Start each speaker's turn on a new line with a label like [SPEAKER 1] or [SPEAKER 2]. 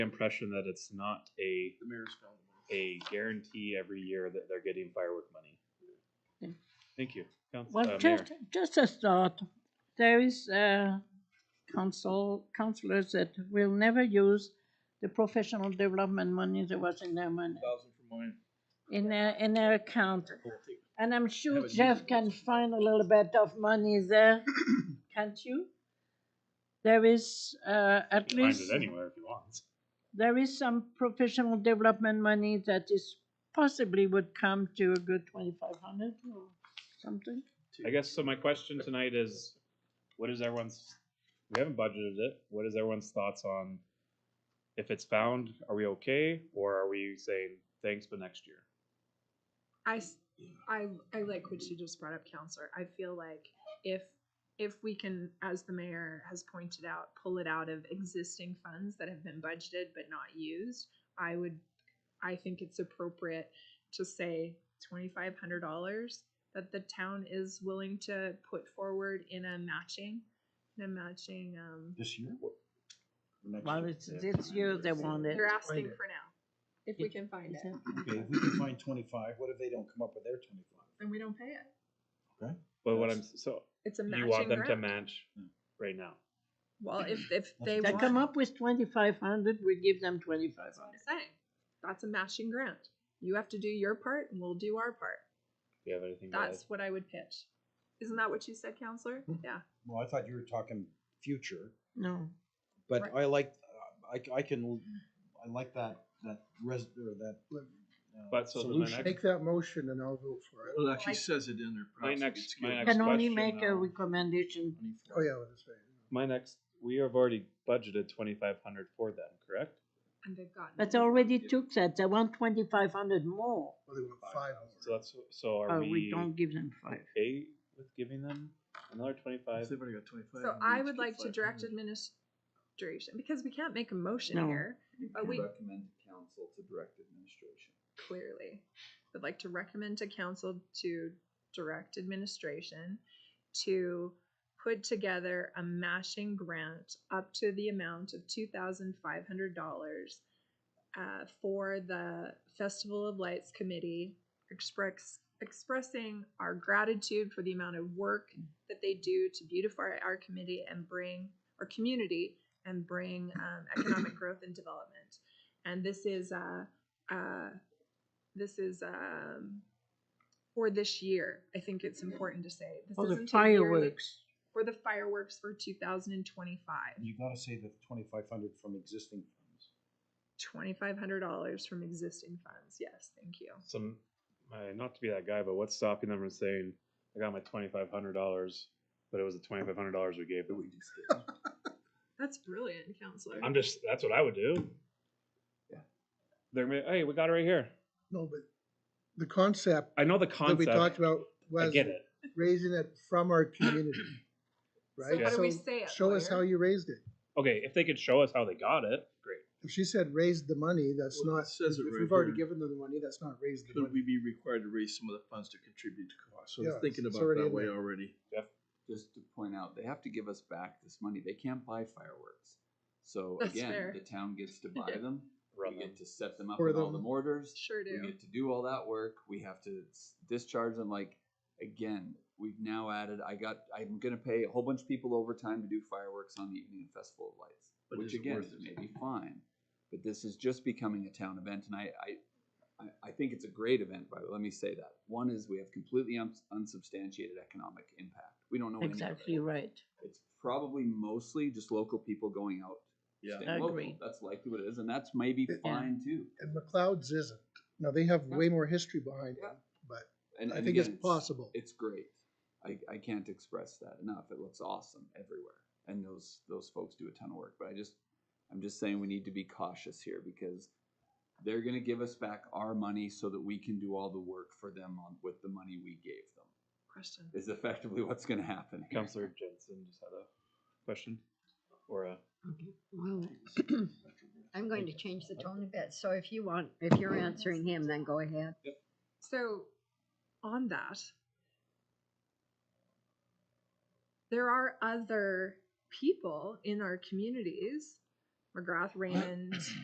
[SPEAKER 1] impression that it's not a,
[SPEAKER 2] The mayor's found the money.
[SPEAKER 1] a guarantee every year that they're getting firework money.
[SPEAKER 3] Okay.
[SPEAKER 1] Thank you. Council- uh,
[SPEAKER 3] Well,
[SPEAKER 1] Mayor.
[SPEAKER 3] just, just a thought, there is, uh, council, councillors that will never use the professional development money that was in their money,
[SPEAKER 2] Thousand for mine.
[SPEAKER 3] in their, in their account. And I'm sure
[SPEAKER 2] Haven't used
[SPEAKER 3] Jeff
[SPEAKER 2] it.
[SPEAKER 3] can find a little bit of money there, can't you? There is, uh, at
[SPEAKER 1] Find
[SPEAKER 3] least.
[SPEAKER 1] it anywhere if you want.
[SPEAKER 3] there is some professional development money that is possibly would come to a good twenty-five hundred or something.
[SPEAKER 1] I guess, so my question tonight is, what is everyone's, we haven't budgeted it, what is everyone's thoughts on if it's found, are we okay, or are we saying, thanks, but next year?
[SPEAKER 4] I, s- I, I like what you just brought up, counselor. I feel like if, if we can, as the mayor has pointed out, pull it out of existing funds that have been budgeted but not used, I would, I think it's appropriate to say twenty-five hundred dollars that the town is willing to put forward in a matching, in a matching, um,
[SPEAKER 2] This year?
[SPEAKER 3] Well, it's this year they want it.
[SPEAKER 4] you're asking
[SPEAKER 2] it.
[SPEAKER 4] for now, if we can find it.
[SPEAKER 2] Okay, if we can find twenty-five, what if they don't come up with their twenty-five?
[SPEAKER 4] Then we don't pay it.
[SPEAKER 1] But what I'm,
[SPEAKER 2] That's-
[SPEAKER 1] so,
[SPEAKER 4] It's a
[SPEAKER 1] you
[SPEAKER 4] matching
[SPEAKER 1] want them to
[SPEAKER 4] grant.
[SPEAKER 1] match
[SPEAKER 2] Yeah.
[SPEAKER 1] right now?
[SPEAKER 4] Well, if, if they
[SPEAKER 3] They
[SPEAKER 4] want.
[SPEAKER 3] come up with twenty-five hundred, we give them twenty-five
[SPEAKER 4] That's what
[SPEAKER 3] hundred.
[SPEAKER 4] I'm saying. That's a matching grant. You have to do your part and we'll do our part.
[SPEAKER 1] Do you have anything to add?
[SPEAKER 4] That's what I would pitch. Isn't that what you said, counselor?
[SPEAKER 2] Hmm.
[SPEAKER 4] Yeah.
[SPEAKER 2] Well, I thought you were talking future,
[SPEAKER 3] No,
[SPEAKER 2] but
[SPEAKER 4] Right.
[SPEAKER 2] I like, uh, I, I can, I like that, that res, or that. uh,
[SPEAKER 1] But so then my
[SPEAKER 2] solution.
[SPEAKER 1] next-
[SPEAKER 5] Make that motion and I'll vote for it.
[SPEAKER 6] Well, it actually
[SPEAKER 4] Like-
[SPEAKER 6] says it in there.
[SPEAKER 1] My
[SPEAKER 6] perhaps it
[SPEAKER 1] next-
[SPEAKER 6] gets
[SPEAKER 1] my
[SPEAKER 6] skipped.
[SPEAKER 1] next-
[SPEAKER 3] can only
[SPEAKER 1] question, uh,
[SPEAKER 3] make a
[SPEAKER 1] though.
[SPEAKER 3] recommendation.
[SPEAKER 5] Oh, yeah, that's right.
[SPEAKER 1] My next, we have already budgeted twenty-five hundred for them, correct?
[SPEAKER 4] And they've gotten.
[SPEAKER 3] But they already took that, they want twenty-five hundred more,
[SPEAKER 5] Well, they want five more.
[SPEAKER 1] So that's, so
[SPEAKER 3] or
[SPEAKER 1] are
[SPEAKER 3] Uh, we
[SPEAKER 1] we
[SPEAKER 3] don't give them five.
[SPEAKER 1] okay with giving them another twenty-five?
[SPEAKER 6] They've already got 25,
[SPEAKER 4] So
[SPEAKER 6] and we
[SPEAKER 4] I
[SPEAKER 6] just
[SPEAKER 4] would
[SPEAKER 6] get
[SPEAKER 4] like to
[SPEAKER 6] 500.
[SPEAKER 4] direct administration, because we can't make a motion
[SPEAKER 3] No.
[SPEAKER 4] here, but we
[SPEAKER 6] Recommend council to direct administration.
[SPEAKER 4] clearly would like to recommend to council to direct administration to put together a matching grant up to the amount of two thousand five hundred dollars uh, for the Festival of Lights Committee, express, expressing our gratitude for the amount of work that they do to beautify our committee and bring our community and bring um, economic growth and development. And this is uh, uh, this is um, for this year. I think it's important to say this
[SPEAKER 3] Or the
[SPEAKER 4] isn't a yearly-
[SPEAKER 3] fireworks,
[SPEAKER 4] for the fireworks for 2025.
[SPEAKER 2] You gotta say the twenty-five hundred from existing funds.
[SPEAKER 4] $2,500 from existing funds. Yes, thank you.
[SPEAKER 1] some my, not to be that guy, but what's stopping them from saying, "I got my twenty five hundred dollars, but it was the twenty five hundred dollars we gave that we just did."
[SPEAKER 4] That's brilliant, counselor.
[SPEAKER 1] I'm just that's what I would do. Yeah, they're gonna be, hey, we got it right here.
[SPEAKER 5] No, but the concept
[SPEAKER 1] I know the
[SPEAKER 5] that we
[SPEAKER 1] concept.
[SPEAKER 5] talked about
[SPEAKER 1] I
[SPEAKER 5] was
[SPEAKER 1] get it.
[SPEAKER 5] raising it from our community,
[SPEAKER 4] So
[SPEAKER 5] right?
[SPEAKER 4] what do we
[SPEAKER 5] So
[SPEAKER 4] say?
[SPEAKER 5] Show us
[SPEAKER 4] lawyer?
[SPEAKER 5] how you raised it.
[SPEAKER 1] Okay, if they could show us how they got it, great.
[SPEAKER 5] If she said raised the money, that's
[SPEAKER 6] Well, it
[SPEAKER 5] not,
[SPEAKER 6] says
[SPEAKER 5] if
[SPEAKER 6] it right
[SPEAKER 5] we've already
[SPEAKER 6] here.
[SPEAKER 5] given them the money, that's not raised the
[SPEAKER 6] Could
[SPEAKER 5] money.
[SPEAKER 6] we be required to raise some of the funds to contribute to costs? So I
[SPEAKER 5] Yeah,
[SPEAKER 6] was thinking
[SPEAKER 5] it's
[SPEAKER 6] about
[SPEAKER 5] already
[SPEAKER 6] that
[SPEAKER 5] in
[SPEAKER 6] way
[SPEAKER 5] there.
[SPEAKER 6] already.
[SPEAKER 7] just to point out, they have to give us back this money. They can't buy fireworks. So
[SPEAKER 4] That's
[SPEAKER 7] again,
[SPEAKER 4] fair.
[SPEAKER 7] the town gets to buy them.
[SPEAKER 1] Run
[SPEAKER 7] we
[SPEAKER 1] them.
[SPEAKER 7] get to set them up
[SPEAKER 5] Or
[SPEAKER 7] with all
[SPEAKER 5] them.
[SPEAKER 7] the mortars.
[SPEAKER 4] Sure
[SPEAKER 7] We
[SPEAKER 5] Mm-hmm.
[SPEAKER 4] do.
[SPEAKER 7] get to do all that work. We have to s- discharge them. Like again, we've now added. I got. I'm gonna pay a whole bunch of people overtime to do fireworks on the evening of Festival of Lights,
[SPEAKER 6] But
[SPEAKER 7] which
[SPEAKER 6] is it
[SPEAKER 7] again
[SPEAKER 6] worth it?
[SPEAKER 7] may be fine. But this is just becoming a town event, and I, I I, I think it's a great event, but let me say that. One is we have completely uns- unsubstantiated economic impact. We don't know any of it.
[SPEAKER 3] exactly right.
[SPEAKER 7] It's probably mostly just local people going out.
[SPEAKER 6] Yeah.
[SPEAKER 7] staying local.
[SPEAKER 3] Agreed.
[SPEAKER 7] That's likely what it is, and that's maybe
[SPEAKER 5] Yeah.
[SPEAKER 7] fine too.
[SPEAKER 5] And McLeod's isn't. Now, they have way more history behind it,
[SPEAKER 7] Yeah.
[SPEAKER 5] but
[SPEAKER 7] And
[SPEAKER 5] I
[SPEAKER 7] and
[SPEAKER 5] think
[SPEAKER 7] again,
[SPEAKER 5] it's possible.
[SPEAKER 7] It's great. I, I can't express that enough. It looks awesome everywhere, and those those folks do a ton of work. But I just I'm just saying we need to be cautious here because they're going to give us back our money so that we can do all the work for them on, with the money we gave them.
[SPEAKER 4] Question.
[SPEAKER 7] Is effectively what's going to happen. here.
[SPEAKER 1] Counselor Jensen just had a question or a
[SPEAKER 8] Okay, Well, I'm going to change the tone a bit, so if you want, if you're answering him, then go ahead.
[SPEAKER 4] So, on that, there are other people in our communities, McGrath Raymond,